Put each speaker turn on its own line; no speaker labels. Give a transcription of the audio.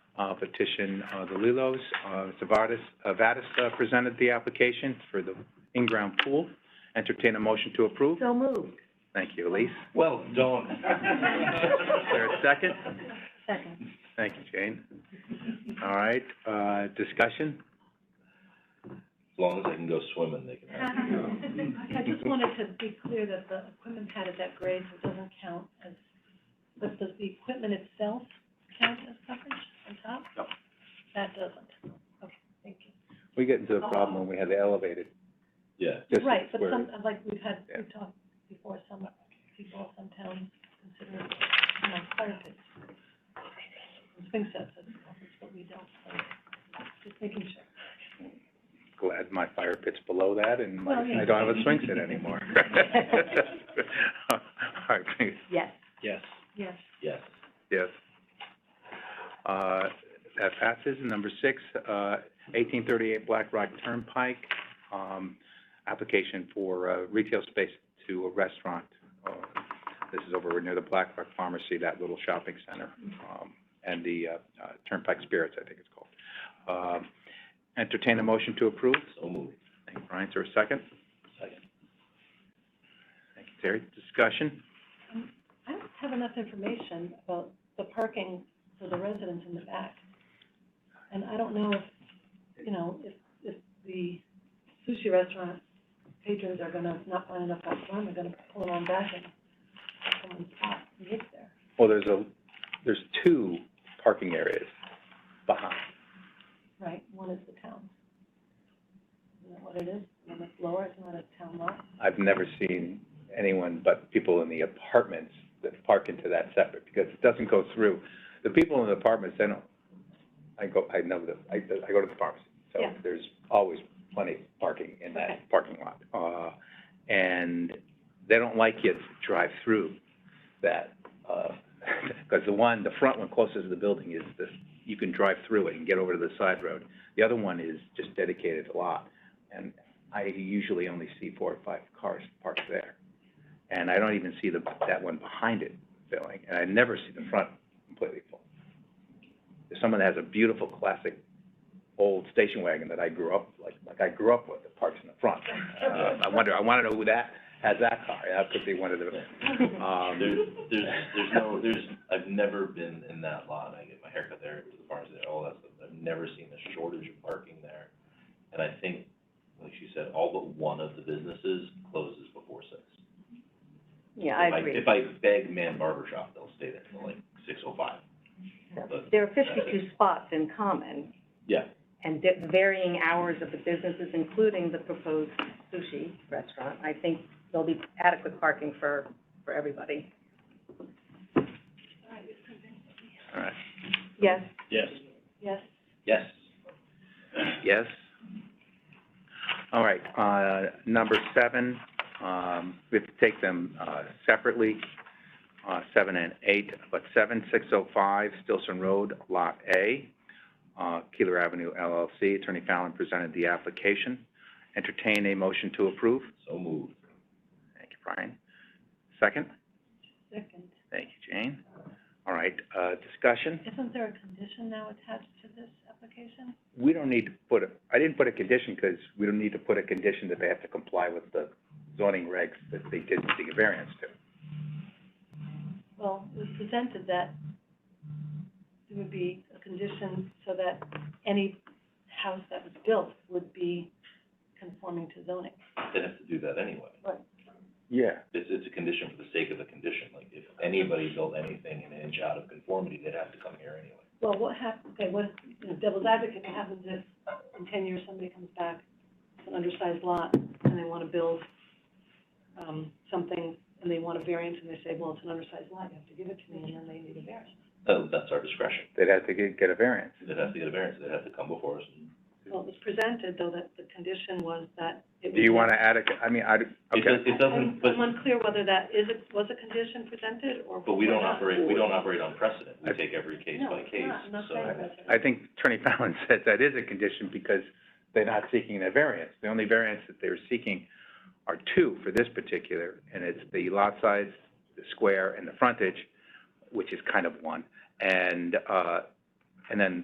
uh, petition, uh, the Lilos. Uh, Mr. Vardis, uh, Vadis uh, presented the application for the in-ground pool. Entertain a motion to approve.
So moved.
Thank you, Elise.
Well, don't.
Is there a second?
Second.
Thank you, Jane. All right, uh, discussion?
As long as I can go swimming, they can have it.
I just wanted to be clear that the equipment pad at that grade doesn't count as, but does the equipment itself count as coverage on top?
No.
That doesn't, okay, thank you.
We get into a problem when we have the elevated.
Yeah.
just
Right, but
where-
some, like, we've had,
Yeah.
we've talked before, some people, some towns consider, you know, fire pits. Swing sets as coverage, but we don't, so, just making sure.
glad my fire pit's below that and my-
Well, yeah.
I don't have a swing set anymore. All right, please,
Yes.
Yes.
Yes.
Yes.
yes. Uh, that passes. Number six, uh, eighteen thirty-eight Black Rock Turnpike, um, application for, uh, retail space to a restaurant. Uh, This is over near the Black Rock Pharmacy, that little shopping center, um, and the, uh, uh, Turnpike Spirits, I think it's called. Um, entertain a motion to approve.
So moved.
Thank you, Brian. Is there a second?
Second.
Thank you, Terry. Discussion?
I don't have enough information about the parking for the residents in the back. And I don't know if, you know, if, if the sushi restaurant patrons are gonna not find enough out front, they're gonna pull around back and someone's spot and get there.
Well, there's a, there's two parking areas behind.
Right, one is the town. Isn't that what it is? And then it's lower, it's not a town lot.
I've never seen anyone but people in the apartments that park into that separate, because it doesn't go through. The people in the apartments, they don't, I go, I know the, I, I go to the pharmacy, so
Yeah.
there's always plenty of parking in
Okay.
that parking lot. Uh, and they don't like kids to drive through that, uh, because the one, the front one closest to the building is the, you can drive through it and get over to the side road. The other one is just dedicated a lot, and I usually only see four or five cars parked there. And I don't even see the, that one behind it filling, and I never see the front completely full. If someone has a beautiful classic old station wagon that I grew up, like, like I grew up with, that parks in the front, uh, I wonder, I wanna know who that, has that car, that could be one of the, um.
There's, there's, there's no, there's, I've never been in that lot, I get my haircut there, to the pharmacy there, all that stuff. I've never seen a shortage of parking there. And I think, like she said, all but one of the businesses closes before six.
Yeah, I
If
agree.
If I beg Man Barber Shop, they'll stay there until like six oh five.
There are fifty-two spots in common
Yeah,
and di- varying hours of the businesses, including the proposed sushi restaurant. I think there'll be adequate parking for, for everybody.
All right,
Yes.
yes.
Yes,
Yes.
yes? All right, uh, number seven, um, we have to take them, uh, separately, uh, seven and eight, but seven, six oh five, Stilson Road, Lot A, uh, Keeler Avenue LLC, Attorney Fallon presented the application. Entertain a motion to approve.
So moved.
Thank you, Brian. Second?
second.
Thank you, Jane. All right, uh, discussion?
Isn't there a condition now attached to this application?
we don't need to put a, I didn't put a condition, because we don't need to put a condition that they have to comply with the zoning regs that they did seek a variance to.
well, it was presented that there would be a condition so that any house that was built would be conforming to zoning.
They have to do that anyway.
Yeah.
It's, it's a condition for the sake of the condition, like, if anybody built anything an inch out of conformity, they'd have to come here anyway.
Well, what hap, okay, what, you know, devil's advocate, what happens if in ten years somebody comes back, it's an undersized lot, and they wanna build, um, something, and they want a variance, and they say, well, it's an undersized lot, you have to give it to me, and then they need a variance.
So that's our discretion,
They'd have to get, get a variance.
they'd have to get a variance, they'd have to come before us and.
Well, it was presented, though, that the condition was that it would.
Do you wanna add a, I mean, I,
It does-
okay,
It doesn't, but,
I'm unclear whether that is, a- was a condition presented or.
but we don't
not.
operate, we don't operate on precedent, we
I-
take every case
No,
by
it's
case,
not. I'm not
so.
saying that's
I think Attorney Fallon said that is a condition, because they're not seeking a variance. The only variance that they're seeking are two for this particular, and it's the lot size, the square, and the frontage, which is kind of one, and, uh, and then